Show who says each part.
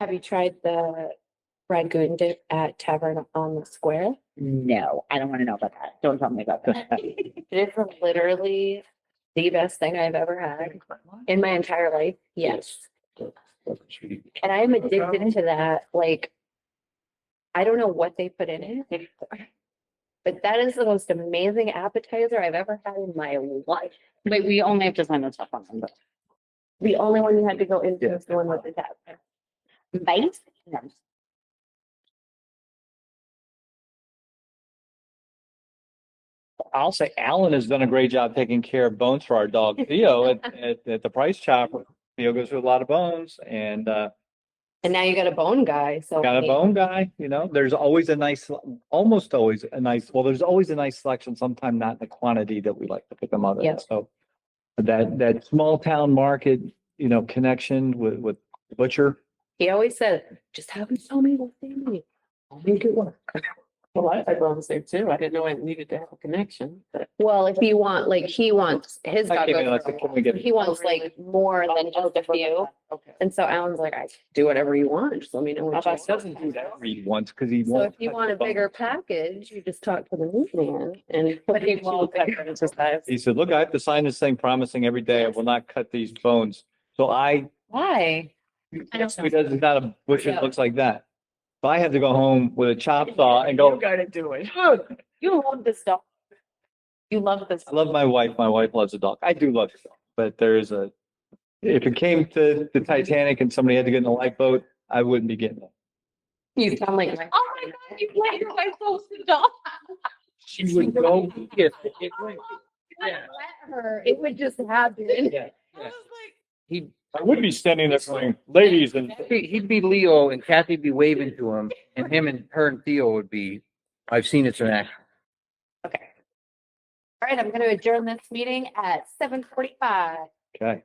Speaker 1: Have you tried the ragoon dip at Tavern on the Square?
Speaker 2: No, I don't want to know about that. Don't tell me about that.
Speaker 1: It is literally the best thing I've ever had in my entire life. Yes. And I am addicted to that. Like, I don't know what they put in it. But that is the most amazing appetizer I've ever had in my life.
Speaker 2: Wait, we only have to sign the top one. but-
Speaker 1: The only one you had to go into
Speaker 3: Yeah.
Speaker 1: was the one with the tap.
Speaker 2: Bite? No.
Speaker 3: I'll say Alan has done a great job taking care of bones for our dog Theo at, at, at the Price Chopper. Theo goes through a lot of bones and, uh,
Speaker 1: And now you got a bone guy, so.
Speaker 3: got a bone guy, you know, there's always a nice, almost always a nice, well, there's always a nice selection, sometime not in the quantity that we like to pick them up. at.
Speaker 1: Yes.
Speaker 3: So that, that small town market, you know, connection with, with butcher.
Speaker 1: He always says, just have them tell me what they need. I'll make it work.
Speaker 4: Well, I, I thought the same too. I didn't know I needed to have a connection, but
Speaker 1: Well, if you want, like, he wants, his dog
Speaker 3: I came in, I
Speaker 1: goes, for
Speaker 3: said,
Speaker 1: a
Speaker 3: "Can we
Speaker 1: walk."
Speaker 3: get-"
Speaker 1: he wants like more than just a few.
Speaker 4: okay.
Speaker 1: And so Alan's like, I can do whatever you want, just let me know. what you
Speaker 3: He doesn't do
Speaker 1: want."
Speaker 3: that read once because he
Speaker 1: So
Speaker 3: won't.
Speaker 1: if you
Speaker 3: touch
Speaker 1: want
Speaker 3: the
Speaker 1: a bigger
Speaker 3: bones.
Speaker 1: package, you just talk to the meat man and.
Speaker 4: But he won't cut it into size.
Speaker 3: He said, look, I have to sign this thing promising every day I will not cut these bones. So I
Speaker 1: Why? I don't
Speaker 3: Because
Speaker 1: know.
Speaker 3: it's not a bush that
Speaker 1: Yeah.
Speaker 3: looks like that. If I have to go home with a chop saw and go,
Speaker 4: gotta do it.
Speaker 3: "Dude,
Speaker 4: You love this dog. You love this.
Speaker 3: I love my wife, my wife loves a dog. I do love a dog, but there is a, if it came to the Titanic and somebody had to get in a lifeboat, I wouldn't be getting it.
Speaker 1: You sound like. my-
Speaker 5: Oh my god, you let your wife go to the dog.
Speaker 3: She would go, yes, it
Speaker 5: Yeah.
Speaker 1: Let her, It would just happen.
Speaker 5: I was like,
Speaker 6: He'd,
Speaker 3: I would be standing there saying, ladies and.
Speaker 6: he'd be Leo and Kathy'd be waving to him and him and her and Theo would be, I've seen it's an act.
Speaker 1: Okay. All right, I'm gonna adjourn this meeting at seven forty-five.
Speaker 3: Okay.